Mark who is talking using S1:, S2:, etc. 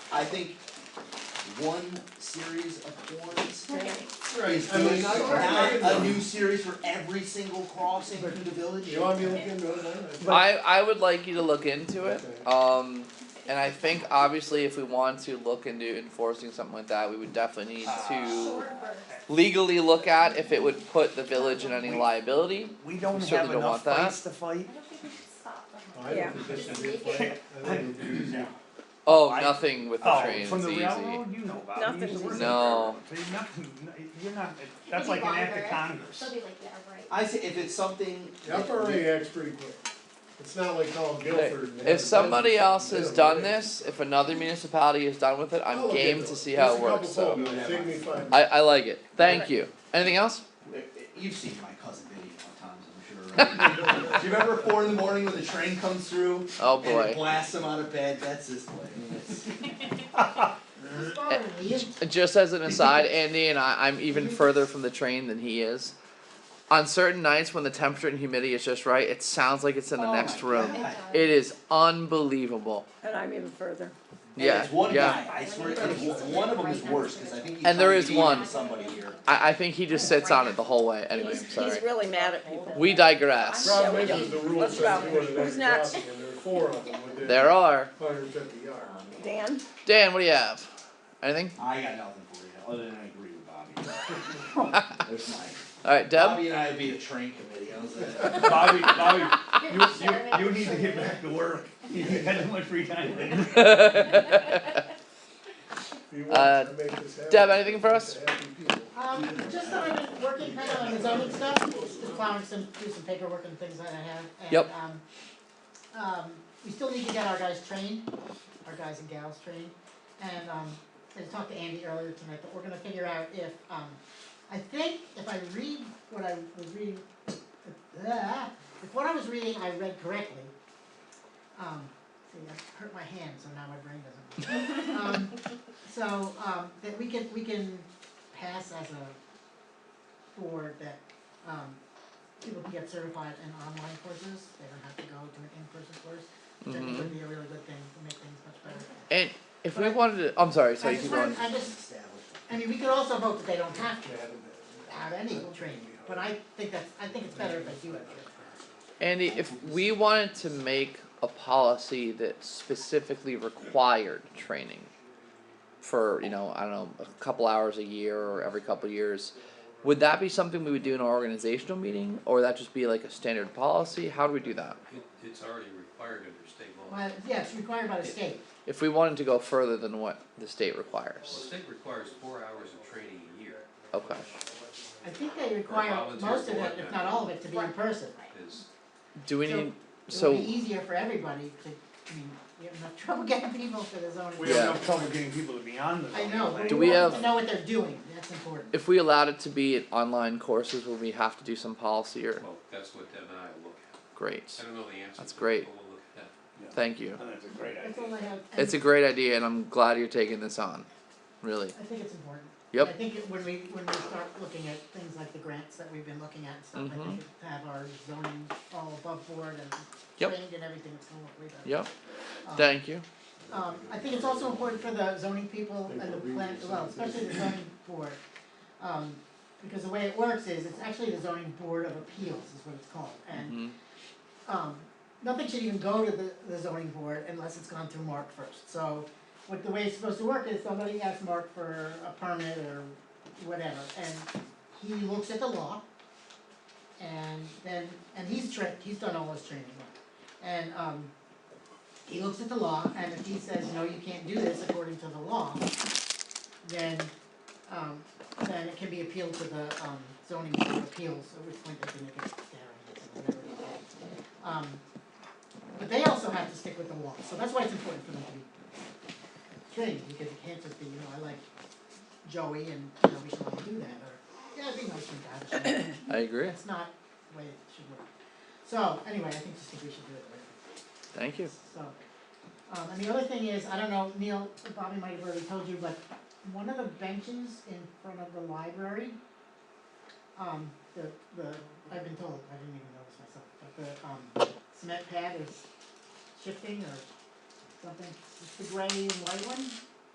S1: I think one series of horns is
S2: Right, I
S1: good,
S2: mean, I
S1: not
S2: don't.
S1: a new series for every single crossing through the village.
S2: You want me to look into it, I don't know.
S3: I I would like you to look into it. Um, and I think obviously if we want to look into enforcing something like that, we would definitely need
S4: Ah.
S3: to legally look at if it would put the village in any liability.
S4: We don't have
S3: certainly don't
S4: enough
S3: want that.
S4: fights to fight.
S2: I
S5: Yeah.
S2: don't think this is it, but I think it is.
S3: Oh,
S4: I-
S3: nothing with the
S4: Oh,
S3: trains
S4: from the
S3: easy.
S4: railroad, you know about it. You used to
S5: Nothing's
S4: work
S5: easy.
S4: at the
S3: No.
S4: railroad. There's nothing, you're not, that's like an act of Congress.
S6: They'll be like, yeah, right.
S1: I say if it's something.
S2: The FRA acts pretty quick. It's not like calling Guilford and. having
S3: If somebody
S2: them-
S3: else has done this, if another municipality has done with it,
S2: I'll
S4: Oh,
S3: I'm
S2: look
S3: game
S2: into
S3: to see how it works.
S2: Just a couple
S3: So
S2: photos, take me five.
S3: I I like it. Thank you. Anything else?
S1: You've seen my cousin video a lot of times, I'm sure, right? Do you remember four in the morning when the train comes through
S3: Oh
S1: and it
S3: boy.
S1: blasts him out of bed, that's his play, It's-
S3: Just as an aside, Andy and I, I'm even further from the train than he is. On certain nights when the temperature and humidity is just right, it sounds like it's in the
S1: Oh
S3: next
S1: my
S3: room.
S1: God.
S3: It is unbelievable.
S5: And I'm even further.
S1: And
S3: Yeah,
S1: it's one
S3: yeah.
S1: guy, I swear, it's one one of them is worse, cause I think he's
S3: And there
S1: trying
S3: is
S1: to
S3: one.
S1: beat somebody here.
S3: I, I think he just sits on it the whole way. Anyway, I'm sorry.
S5: He's really mad at people.
S3: We digress.
S5: Yeah, we
S2: Problem is,
S5: don't.
S2: is the rules
S5: Let's
S2: that
S5: go.
S2: you want to
S5: Who's next?
S2: crossing, and there are four of them within
S3: There are.
S2: hundred and fifty yards.
S5: Dan?
S3: Dan, what do you have? Anything?
S1: I got nothing for you, other than I agree with Bobby. There's mine.
S3: All right, Deb.
S7: Um,
S1: Bobby and I would be a train committee, I was like.
S4: Bobby, Bobby,
S6: uh,
S4: you, you, you need to get back to work. You had too much free time.
S2: If you
S3: Uh,
S2: want to make this happen.
S3: Deb, anything for us?
S2: it's a happy people.
S7: Um, just that I've been working kind of on zoning stuff, just plowing some, do some paperwork and things that I have, and,
S3: Yep.
S7: um, um, we still need to get our guys trained, our guys and gals trained, and, um, I talked to Andy earlier tonight, but we're gonna figure out if, um, I think if I read what I was reading, uh, if what I was reading I read correctly, um, see, I hurt my hand, so now my brain doesn't. work. Um, so, um, that we can, we can pass as a board that, um, people can get certified in online courses, they don't have to go to an in-person course, which I think would be a really good thing to make things much better.
S3: And if we wanted to, I'm sorry. So you keep
S7: I
S3: going.
S7: just wanted, I just, I mean, we could also vote that they don't have to have any training, but I think that's, I think it's better if they do it.
S3: Andy, if we wanted to make a policy that specifically required training for, you know, I don't know, a couple hours a year or every couple years, would that be something we would do in our organizational meeting or would that just be like a standard policy? How do we do that?
S8: It, it's already required under state law. Well,
S7: Well, yeah, it's required by the state.
S3: If we wanted to go further than what the state
S8: the
S3: requires.
S8: state requires four hours of training a year
S3: Okay.
S7: I think they require
S8: volunteer
S7: most of it,
S8: board
S7: if not all of it, to be in person.
S8: is,
S3: Do we
S7: So,
S3: need,
S7: It
S3: so,
S7: would be easier for everybody to, I mean, you have enough trouble getting people for the zoning.
S4: We have
S3: Yeah.
S4: enough trouble getting people to be on the
S7: I
S4: zoning
S7: know,
S4: thing.
S7: but
S3: Do
S7: we
S3: we
S7: want them
S3: have-
S7: to know what they're doing, that's important.
S3: if we allowed it to be at online courses, would we have to do some policy or?
S8: well, that's what Deb and I will look at.
S3: Great.
S8: I don't know the answer.
S3: That's
S8: but
S3: great.
S8: We'll look at that.
S3: Thank you.
S4: And that's a great
S7: That's
S4: idea.
S7: all I have, and
S3: It's a great idea and I'm glad you're taking this on. Really.
S7: I think it's important.
S3: Yep.
S7: I think it- when we, when we start looking at things like the grants that we've been looking at and stuff, I
S3: Mhm.
S7: think it- have our zoning all above board and
S3: Yep.
S7: trained and everything, it's gonna look way better.
S3: Yep.
S7: Um,
S3: Thank you.
S7: Um, I think it's also important for the zoning people and the plan, well, especially the zoning board. Um, because the way it works is, it's actually the zoning board of appeals is what it's called, and,
S3: hmm
S7: um, nothing should even go to the, the zoning board unless it's gone through Mark first, so. What the way it's supposed to work is somebody asks Mark for a permit or whatever, and he looks at the law. And then, and he's trained, he's done all his training, and, um, he looks at the law, and if he says, no, you can't do this according to the law, then, um, then it can be appealed to the, um, zoning board of appeals, at which point they can make a variance or whatever it is. Um, but they also have to stick with the law, so that's why it's important for them to be trained, because it can't just be, you know, I like Joey and, you know, we should all do that, or, yeah, it'd be nice for him to have a show.
S3: I agree.
S7: That's not the way it should work. So, anyway, I think just think we should do it the way it
S3: Thank you.
S7: so, um, and the other thing is, I don't know, Neil, Bobby might have already told you, but one of the benches in front of the library, um, the, the, I've been told, I didn't even notice myself, but the, um, cement pad is shifting or something. It's the gray and white one,